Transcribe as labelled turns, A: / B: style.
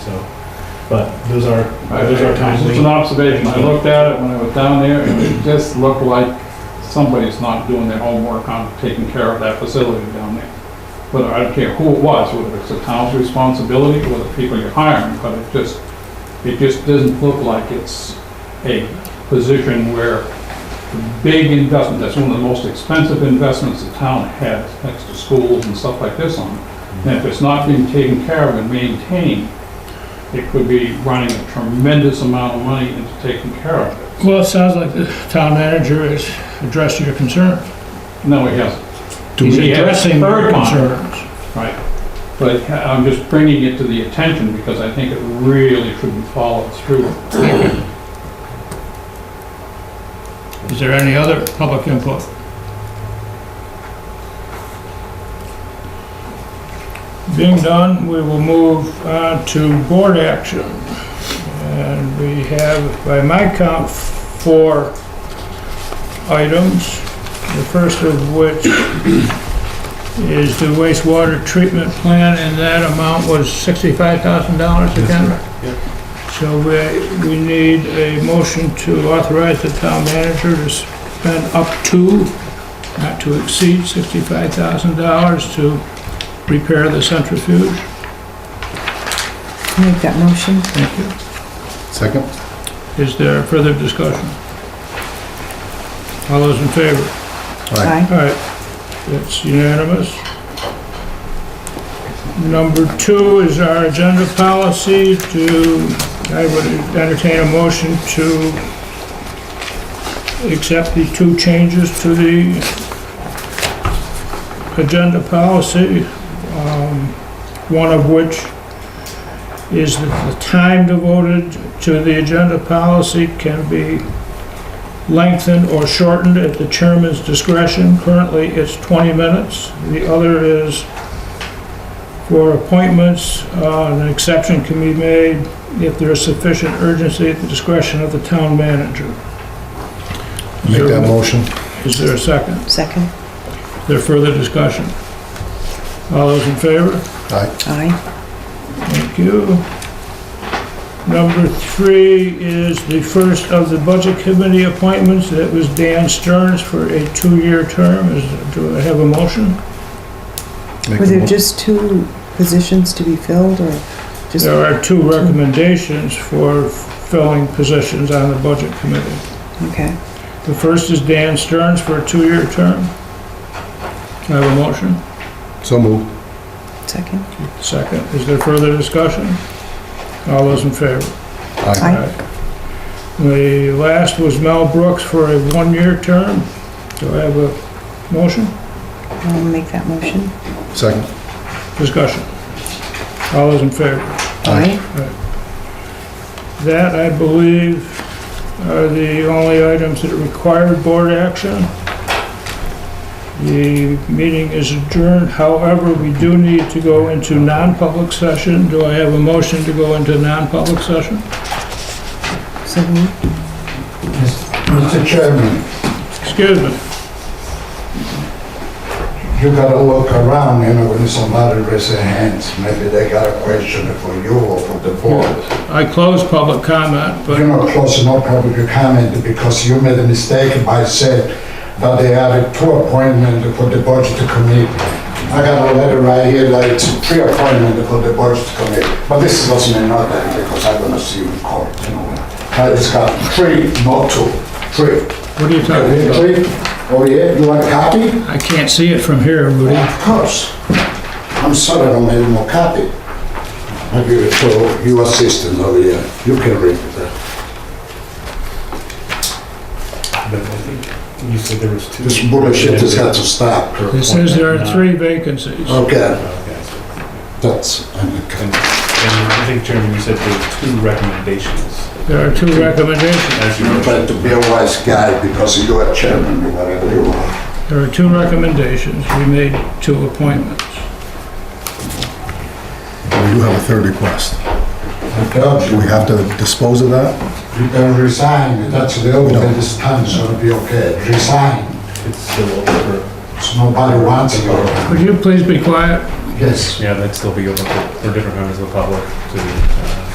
A: So, but those are, those are times.
B: It's just an observation, I looked at it when I was down there, and it just looked like somebody's not doing their homework on taking care of that facility down there. But I don't care who it was, whether it's the town's responsibility or the people you're hiring, but it just, it just doesn't look like it's a position where the big investment, that's one of the most expensive investments the town has, next to schools and stuff like this on. it. And if it's not being taken care of and maintained, it could be running a tremendous amount of money into taking care of it.
C: Well, it sounds like the town manager has addressed your concerns.
B: No, it hasn't,
C: He's
B: He has
C: addressing your
B: heard mine.
C: concerns.
B: right. But I'm just bringing it to the attention because I think it really should be followed through.
C: Is there any other public input? Being done, we will move on to board action. And we have, by my count, four items. The first of which is the wastewater treatment plan, and that amount was $65,000 again? So we, we need a motion to authorize the town manager to spend up to, not to exceed sixty-five thousand dollars to repair the centrifuge.
D: Make that motion.
C: Thank you.
E: Second?
C: Is there further discussion? All those in favor?
D: Aye.
C: All right, that's unanimous. Number two is our agenda policy to, I would entertain a motion to accept the two changes to the agenda policy, um, one of which is that the time devoted to the agenda policy can be lengthened or shortened at the chairman's discretion. Currently, it's 20 minutes. The other is for appointments, uh, an exception can be made if there is sufficient urgency at the discretion of the town manager.
E: Make that motion.
C: Is there a second?
D: Second.
C: Is there further discussion? All those in favor?
E: Aye.
D: Aye.
C: Thank you. Number three is the first of the Budget Committee appointments. That was Dan Stearns for a two-year term. Is, do I have a motion?
E: Make
D: Were
E: the
D: there
E: mo-
D: just two positions to be filled or just?
C: There are two recommendations for filling positions on the Budget Committee.
D: Okay.
C: The first is Dan Stearns for a two-year term. Do I have a motion?
E: So moved.
D: Second.
C: Second. Is there further discussion? All those in favor?
E: Aye.
D: Aye.
C: The last was Mel Brooks for a one-year term. Do I have a motion?
D: I'll make that motion.
E: Second?
C: Discussion. All those in favor?
D: Aye.
C: That, I believe, are the only items that required board action. The meeting is adjourned. However, we do need to go into non-public session. Do I have a motion to go into non-public session?
D: So moved.
E: Mr. Chairman,
C: Excuse me.
E: you gotta look around, you know, when somebody raises their hands, maybe they got a question for you or for the board.
C: I close public comment,
E: You're
C: but
E: not close enough public comment because you made a mistake by saying that they added two appointments for the budget committee. I got a letter right here that it's three appointments for the budget committee, but this doesn't mean nothing because I'm gonna see you in court, you know. I just got three, not two, three.
C: what are you talking about?
E: Three, oh yeah, you want a copy?
C: I can't see it from here, Rudy.
E: Of course. I'm sorry I don't have more copy. I give it to your assistant over here. You can read it.
F: But I think you said there was two.
E: This bullshit has got to stop.
C: It says there
F: Uh,
C: are three vacancies.
E: Okay,
F: Okay, so-
E: that's, okay.
F: And and I think, Chairman, you said there were two recommendations.
C: There are two recommendations.
F: As you
E: You try
F: mentioned,
E: to be a wise guy because you are chairman, you whatever you are.
C: There are two recommendations. We made two appointments.
G: We do have a third request.
E: I told
G: Do
E: you,
G: we have to dispose of that?
E: you can resign. That's the only thing this time is gonna be okay. Resign.
F: it's still open for
E: So nobody wants you.
C: Would you please be quiet?
E: Yes.
F: Yeah, that'd still be open for, for different members of the public to, uh,